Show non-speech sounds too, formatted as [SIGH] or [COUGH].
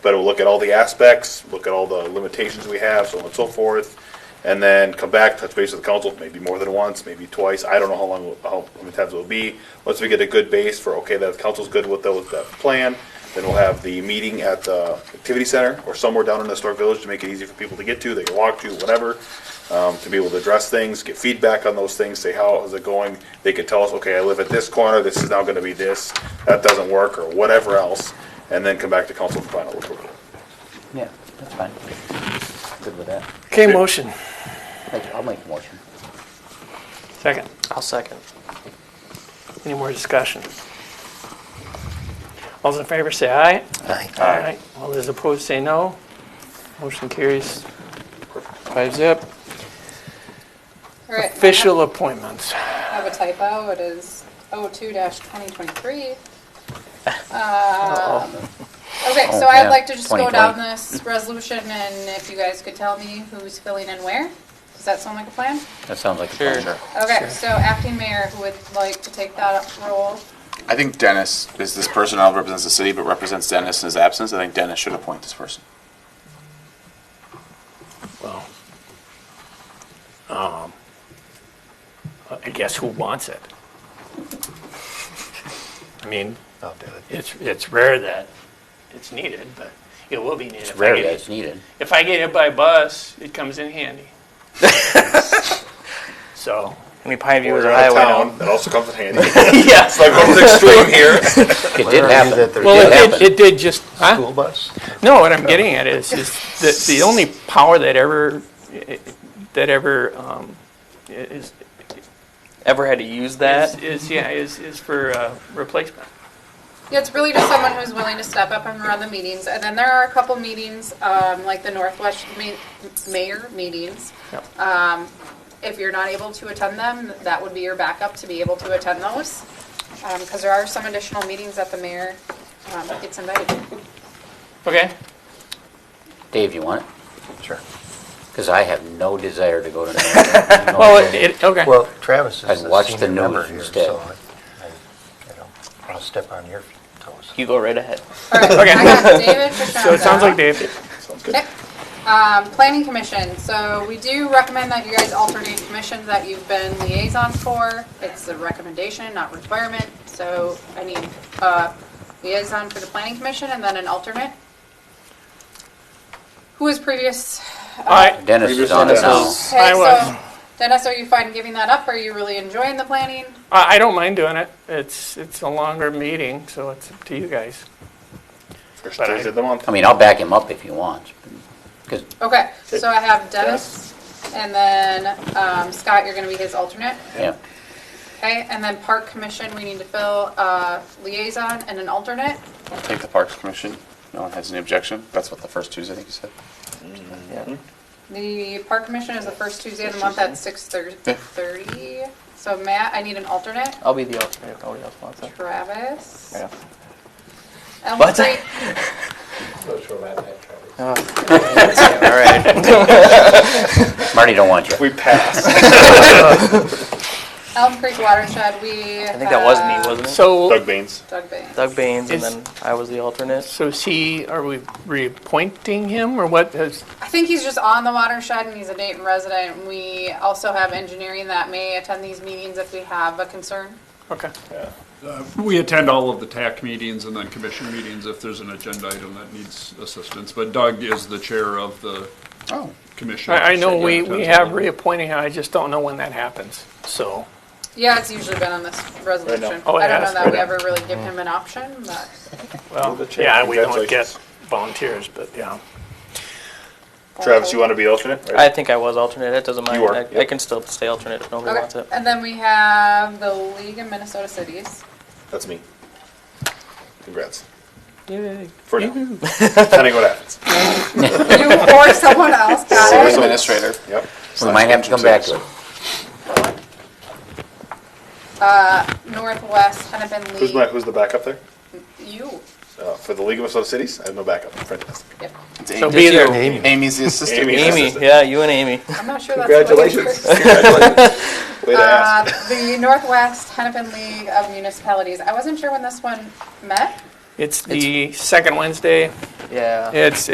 But we'll look at all the aspects, look at all the limitations we have, so on and so forth, and then come back, touch base with the council, maybe more than once, maybe twice. I don't know how long, how many times it'll be. Once we get a good base for, okay, that council's good with that, with that plan, then we'll have the meeting at the activity center or somewhere down in the historic village to make it easy for people to get to, they can walk to, whatever um, to be able to address things, get feedback on those things, say, how is it going? They could tell us, okay, I live at this corner, this is now gonna be this, that doesn't work, or whatever else, and then come back to council for final approval. Yeah, that's fine. Good with that. Okay, motion. Thank- I'll make a motion. Second. I'll second. Any more discussion? All those in favor say aye. Aye. Aye. All those opposed say no. Motion carries five zip. All right, I have- Official appointments. I have a typo, it is 02-2023. Um, Okay, Oh, so I'd man, like to just go down 2020. this resolution and if you guys could tell me who's filling in where? Does that sound like a plan? That sounds like a Sure. plan. Okay, so acting mayor, who would like to take that role? I think Dennis is this person now represents the city, but represents Dennis in his absence. I think Dennis should appoint this person. Well, um, I guess who wants it? I mean, I'll do it. it's, it's rare that it's needed, but it will be needed. It's rare that it's needed. If I get hit by a bus, it comes in [LAUGHS] handy. So, How many pine We're viewers are out of highway town, now? that also comes in handy. It's yes. like, going to the extreme here. It did happen. [LAUGHS] Well, It it happened. did, it did just, huh? School bus? No, what I'm getting at is, is that the only power that ever, that ever, um, is, Ever had to use is, that? is, yeah, is, is for, uh, replacement. Yeah, it's really just someone who's willing to step up and run the meetings. And then there are a couple meetings, um, like the Northwest Ma- Mayor meetings. Yep. Um, if you're not able to attend them, that would be your backup to be able to attend those. Um 'cause cause there are some additional meetings that the mayor, um, gets invited to. Okay, Dave, you want it? Sure. Because I have no desire to go to. Nashville. No well, idea. it, okay. Well, Travis I'd is the watch the senior news member here, instead. so I, I, you know, I'll step on your toes. You go right ahead. Alright, Okay. I got David Pashaga. So it sounds like David, Sounds good. Okay. Um, planning commission, so we do recommend that you guys alternate commissions that you've been liaison for. It's a recommendation, not requirement, so I need, uh, liaison for the planning commission and then an alternate. Who was previous? all right, Dennis is on it now. Previous Okay, I was. so Dennis, are you fine giving that up? Are you really enjoying the planning? I, I don't mind doing it, it's, it's a longer meeting, so it's up to you guys. First Thursday of the month. I mean, I'll back him up if he wants. Because Okay, so I have Dennis and then, um, Scott, you're gonna be his alternate. yeah, Okay, and then park commission, we need to fill a liaison and an alternate. I'll take the Parks Commission. No one has any objection. That's what the first Tuesday, I think you said. Yeah. The park commission is the first Tuesday of the month at six thirty. So Matt, I need an alternate. I'll be the alternate if nobody else wants it. Travis. Yeah. Elm What? Creek, All right. Marty don't want you. We pass. Elm Creek Watershed, we. I think that was me, have wasn't it? So, Doug Baines. Doug Baines. Doug Baines, and Is- then I was the alternate. so is he, are we reappointing him, or what is, I think he's just on the watershed and he's a Dayton resident. We also have engineering that may attend these meetings if we have a concern. okay. Uh, We attend all of the TAC meetings and then commission meetings if there's an agenda item that needs assistance. But Doug is the chair of the Oh. commission. I, I know Yeah, we, attends we all have of them. reappointing him, I just don't know when that happens, so. Yeah, it's usually been on this resolution. Oh, it I don't has? know that we ever really give him an option, but. Well, You're the chair. yeah, we don't get Congratulations. volunteers, but yeah. Travis, you want to be alternate? I think I was alternate. It doesn't mind. You are, I, I yep. can still stay alternate if nobody wants Okay, it. and then we have the League of Minnesota Cities. That's me. Congrats. Yay. For now. Depending what happens. [LAUGHS] You or [LAUGHS] someone else, got City it? Administrator. Yep. We might have to come back to it. Northwest Hennepin Who's my, League. who's the backup there? You. Uh, For the League of Minnesota Cities? I have no backup. Fantastic. Yep. It's So Amy. be there. Amy's the assistant. Amy. Amy, Assistant. yeah, you and Amy. I'm not sure that's. what it Congratulations. is. [LAUGHS] [LAUGHS] Congratulations. Way to ask. Uh, The Northwest Hennepin League of Municipalities. I wasn't sure when this one met. It's the second Wednesday. Yeah. It's,